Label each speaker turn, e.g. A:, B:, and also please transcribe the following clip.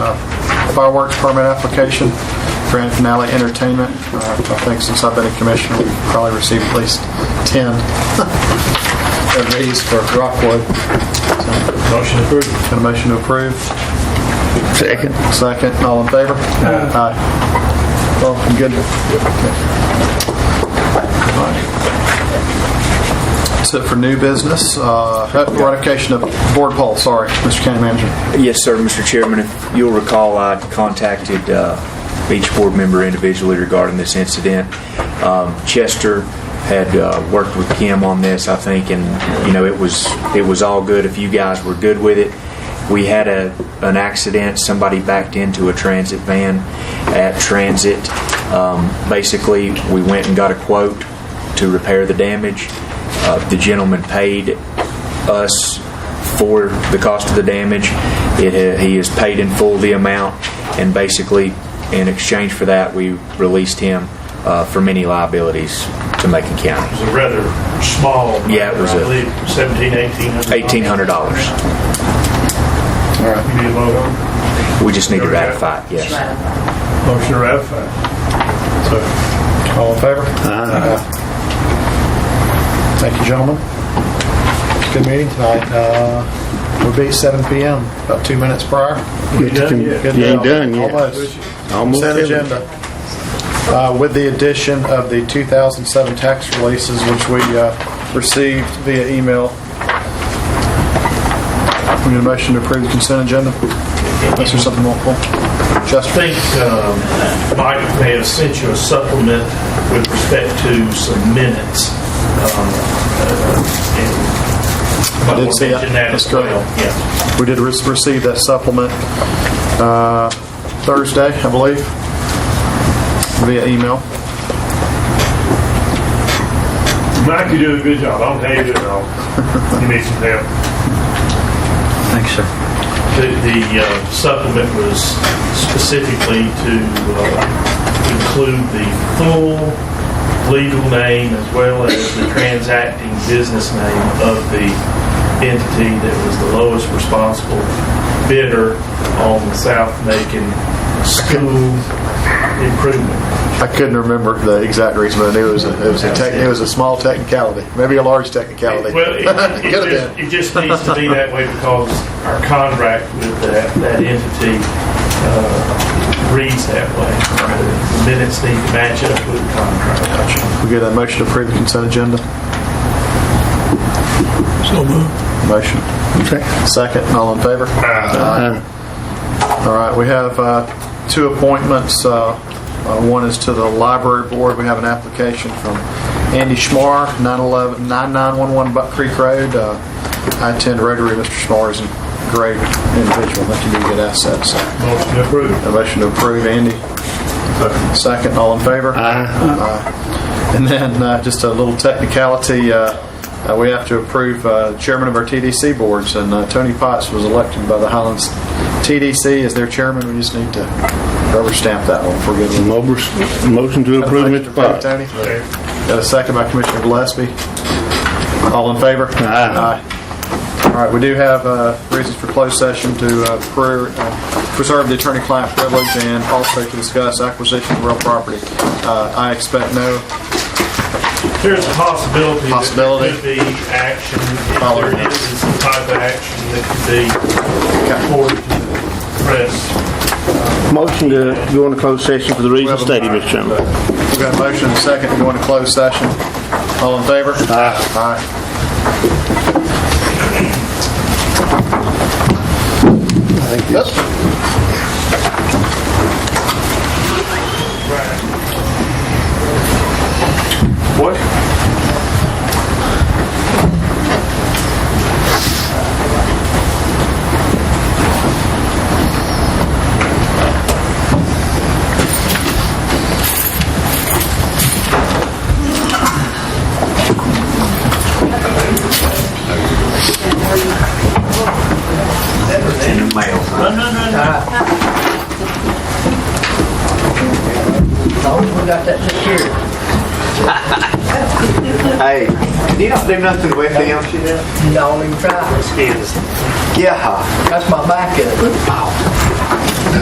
A: Uh, fireworks permit application for Finale Entertainment. Uh, I think since I've been a commissioner, we've probably received at least 10 of these for Rockwood. Motion approved. Got a motion to approve?
B: Second.
A: Second, all in favor? Aye. Well, I'm good. That's it for new business. Uh, Ratification of board poll, sorry, Mr. County Manager.
C: Yes, sir, Mr. Chairman. If you'll recall, I contacted uh, each board member individually regarding this incident. Um, Chester had uh, worked with Kim on this, I think, and, you know, it was, it was all good if you guys were good with it. We had a, an accident, somebody backed into a transit van at Transit. Um, Basically, we went and got a quote to repair the damage. Uh, The gentleman paid us for the cost of the damage. It, he is paid in full the amount, and basically, in exchange for that, we released him uh, from any liabilities to Macon County.
D: was a rather small.
C: Yeah, it was
D: I
C: a-
D: believe 17, 1800.
C: Eighteen hundred dollars.
D: You need a vote on it?
C: We just need to ratify it. Yes.
D: Motion to ratify.
A: All in favor? Aye. Thank you, gentlemen. Good meeting tonight. Uh, We'll be at 7 PM, about two minutes prior.
D: You done yet?
A: Good
B: You ain't
A: deal.
B: done yet.
A: Almost.
B: Almost
A: Consent
B: everything.
A: agenda. Uh, With the addition of the 2007 tax releases, which we uh, received via email. We need a motion to approve the consent agenda. Unless there's something more, Paul?
D: I
A: Justin?
D: think um, Mike may have sent you a supplement with respect to some minutes. um, uh, and-
A: I did see that.
D: But we'll mention that as
A: That's correct.
D: well. Yeah.
A: We did re- receive that supplement uh, Thursday, I believe, via email.
D: Mike, you do a good job. I don't know how you do it all. You need some help.
B: Thanks, sir.
D: The the, uh, supplement was specifically to uh, include the full legal name as well as the transacting business name of the entity that was the lowest responsible bidder on the South Macon School Improvement.
A: I couldn't remember the exact reason, but I knew it was a, it was a, tech- it was a small technicality, maybe a large technicality.
D: Well, it- it
A: Could have been.
D: just- it just needs to be that way because our contract with that that entity uh, reads that way. The Minutes need to match up with the contract.
A: We get a motion to approve the consent agenda? So moved. Motion. Second, all in favor? Aye. All right, we have uh, two appointments. Uh, uh, One is to the library board. We have an application from Andy Schmar, 911 9911 Buck Creek Road. Uh, I attend Rotary. Mr. Schmar is a great individual, I think he'd be a good asset, so.
D: Motion approved.
A: A motion to approve, Andy. Second, all in favor? Aye. And then, uh, just a little technicality, uh, uh, we have to approve uh, chairman of our TDC boards, and uh, Tony Potts was elected by the Highlands TDC as their chairman. We just need to rubber stamp that one for good.
B: Mobers- Motion to approve, Mr. Potts.
A: Tony? Got a second by Commissioner Gillespie. All in favor?
B: Aye.
A: Aye. All right, we do have uh, reasons for closed session to uh, per- uh, preserve the attorney-client privilege and also to discuss acquisition of real property. Uh, I expect no,
D: There's a possibility that
A: Possibility.
D: there could be action, if
A: Following
D: there
A: up.
D: is some type of action that could be reported to the press.
B: Motion to go into closed session for the reasons
A: Well,
B: stated, Mr. Chairman.
A: we've Uh, got a motion and a second to go into closed session. All in favor? Aye. Aye.
D: What?
C: In the mail.
E: Hey, you don't do nothing with him.
F: Don't even try.
E: Yeah. Oh,
F: That's my backup.